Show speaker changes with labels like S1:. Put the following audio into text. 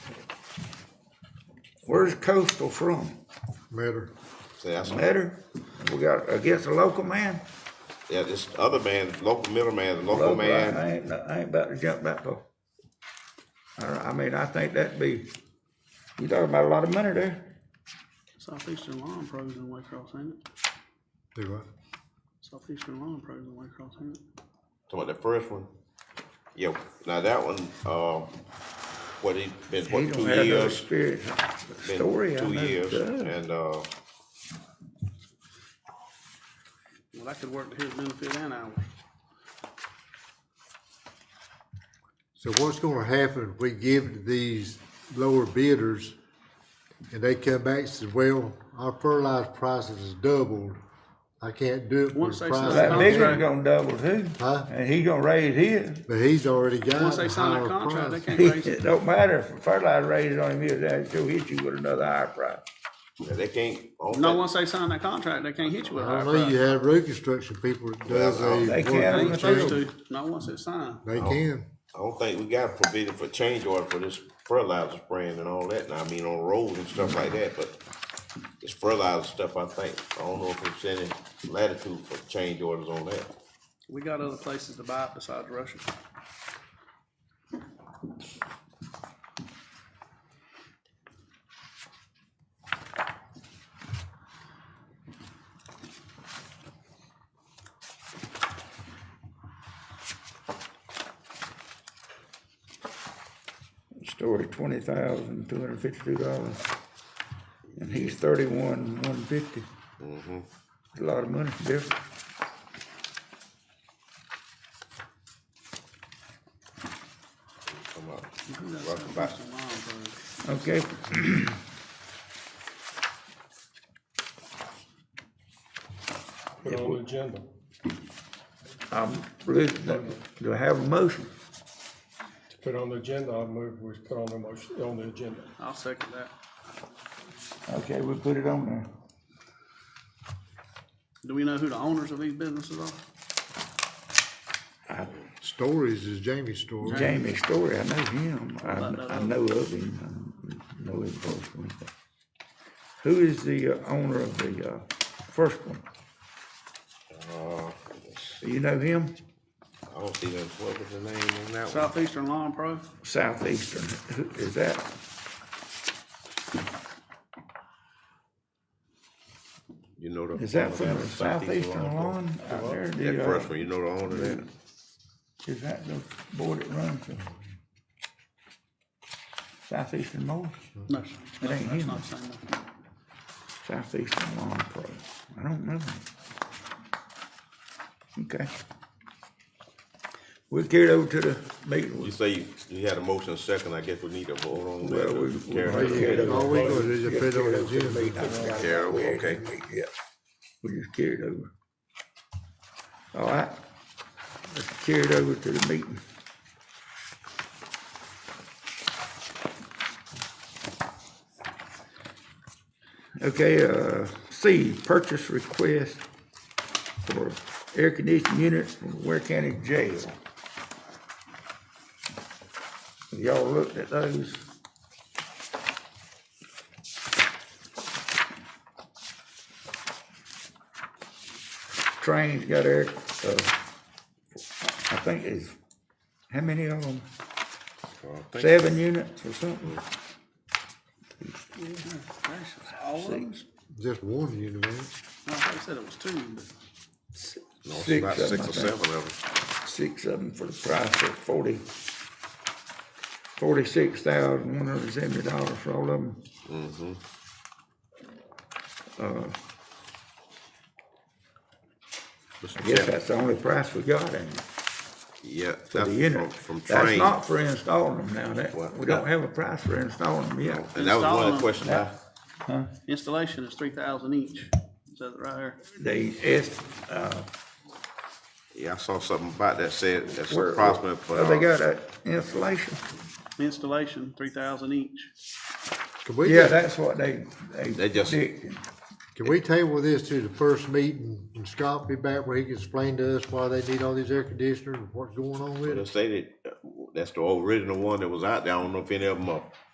S1: Where's Coastal from?
S2: matter.
S3: See, that's,
S1: Matter? We got, I guess, a local man?
S3: yeah, this other man, local middleman, the local
S1: Local, I-
S3: man,
S1: I ain't, I ain't about to jump that far. I, don't- I mean, I think that'd be, you talking about a lot of money there.
S4: Southeastern Lawn Pros in Waycross, ain't it?
S2: Do what?
S4: Southeastern Lawn Pros in Waycross, ain't it?
S3: talking about the first one. Yeah, now that one, uh, what he, been,
S1: He
S3: what,
S1: don't
S3: two
S1: have no
S3: years?
S1: experience.
S3: Been
S1: Story, I
S3: Two
S1: know.
S3: years,
S1: Good.
S3: and, uh,
S4: Well, I could work to his benefit and ours.
S2: So what's gonna happen if we give it to these lower bidders and they come back and says, well, our fertilizer prices is doubled. I can't do it for
S4: Once
S2: the
S4: they
S2: price.
S4: sign
S1: That big
S2: I
S1: one's
S4: Contract.
S1: gonna double too,
S2: Huh?
S1: and he gonna raise his.
S2: got." But he's already got
S4: Once
S2: a
S4: they sign
S2: higher
S4: that contract, they
S2: price.
S4: can't raise it.
S1: It don't matter if fertilizer raises on him, he'll down, he'll hit you with another higher price.
S3: yeah, they can't. I don't
S4: No,
S3: think-
S4: once they sign that contract, they can't hit you with a
S2: I
S4: higher
S2: don't know, you
S4: price.
S2: have road construction people that does
S3: Well,
S1: they
S2: a. work
S1: can't.
S4: They
S2: on
S4: ain't
S2: the
S4: supposed
S2: change.
S4: to, not once it's signed.
S2: They can.
S3: I don't think we got a provision for change order for this fertilizer spraying and all that. And I mean, on roads and stuff like that, but it's fertilizer stuff, I think. I don't know if it's any latitude for change orders on that.
S4: We got other places to buy it besides Russia.
S1: Story twenty thousand, two hundred fifty-two dollars. And he's thirty-one, one fifty. A lot of money, different.
S3: Come on.
S4: Who got
S3: Rush
S4: Southeastern
S3: back.
S4: Lawn Pros?
S1: Okay.
S5: put on the agenda.
S1: I'm, losing that. do I have a motion?
S5: To put on the agenda, I move we put on the motion, on the agenda.
S4: I'll second that.
S1: Okay, we put it on there.
S4: Do we know who the owners of these businesses are?
S2: Stories is Jamie's story.
S1: Jamie Story, I know him. I,
S4: Well, I
S1: I
S4: know
S1: know of him. I know him personally. Who is the uh, owner of the, uh, first one?
S3: Uh,
S1: Do you know him?
S3: I don't see them, what was the name on that one?
S4: Southeastern Lawn Pro?
S1: Southeastern, Who- is that?
S3: You know the.
S1: Is that from
S3: owner
S1: the
S3: of that
S1: southeastern lawn out there?
S3: That
S1: The, uh,
S3: first one, you know the owner of that?
S1: Is that the board that runs the southeastern mowers?
S4: No, sir.
S1: It ain't
S4: That's
S1: him.
S4: not the same one.
S1: Southeastern Lawn Pro. I don't know. Okay. We'll carry it over to the meeting.
S3: You say you, you had a motion second, I guess we need a vote on that.
S1: Well, we- we-
S3: Carol,
S1: we- Yeah,
S2: All we gonna do
S1: Yeah,
S2: is put it
S1: carry
S2: on the
S1: it over to
S2: agenda.
S1: the meeting. I forgot about
S3: Carol,
S1: where it
S3: okay.
S1: is. Yeah. We just carried over. All right. Let's carry it over to the meeting. Okay, uh, C, purchase request for air conditioning unit from Ware County Jail. Y'all looked at those? Train's got air, uh, I think it's, how many of them? Seven units or something?
S4: Gracious, all of them?
S2: Just one unit, ain't it?
S4: No, I thought you said it was two, but
S3: No, it's
S1: Six
S3: about
S1: of 'em,
S3: six
S1: I
S3: or
S1: think.
S3: seven of them.
S1: Six of them for the price of forty, forty-six thousand, one hundred and seventy dollars for all of them.
S3: Mr.
S1: I guess
S3: Chairman.
S1: that's the only price we got in it,
S3: Yeah,
S1: for
S3: that's
S1: the
S3: from,
S1: unit.
S3: from
S1: That's
S3: train.
S1: not for installing them now, that, we
S3: Well,
S1: don't
S3: that-
S1: have a price for installing them yet.
S3: And that was one of
S4: Install
S3: the
S4: 'em.
S3: questions I,
S4: installation is three thousand each. It Says it right there.
S1: They, it's, uh,
S3: yeah, I saw something about that said, that's
S1: where,
S3: approximate for.
S1: they got that installation.
S4: Installation, three thousand each.
S2: Can we
S1: Yeah,
S2: just-
S1: that's what they, they.
S3: They just-
S1: predicted.
S2: Can we table this to the first meeting and Scott be back where he can explain to us why they need all these air conditioners and what's going on with
S3: They uh,
S2: it?
S3: say that, uh, that's the original one that was out there, I don't know if any of them are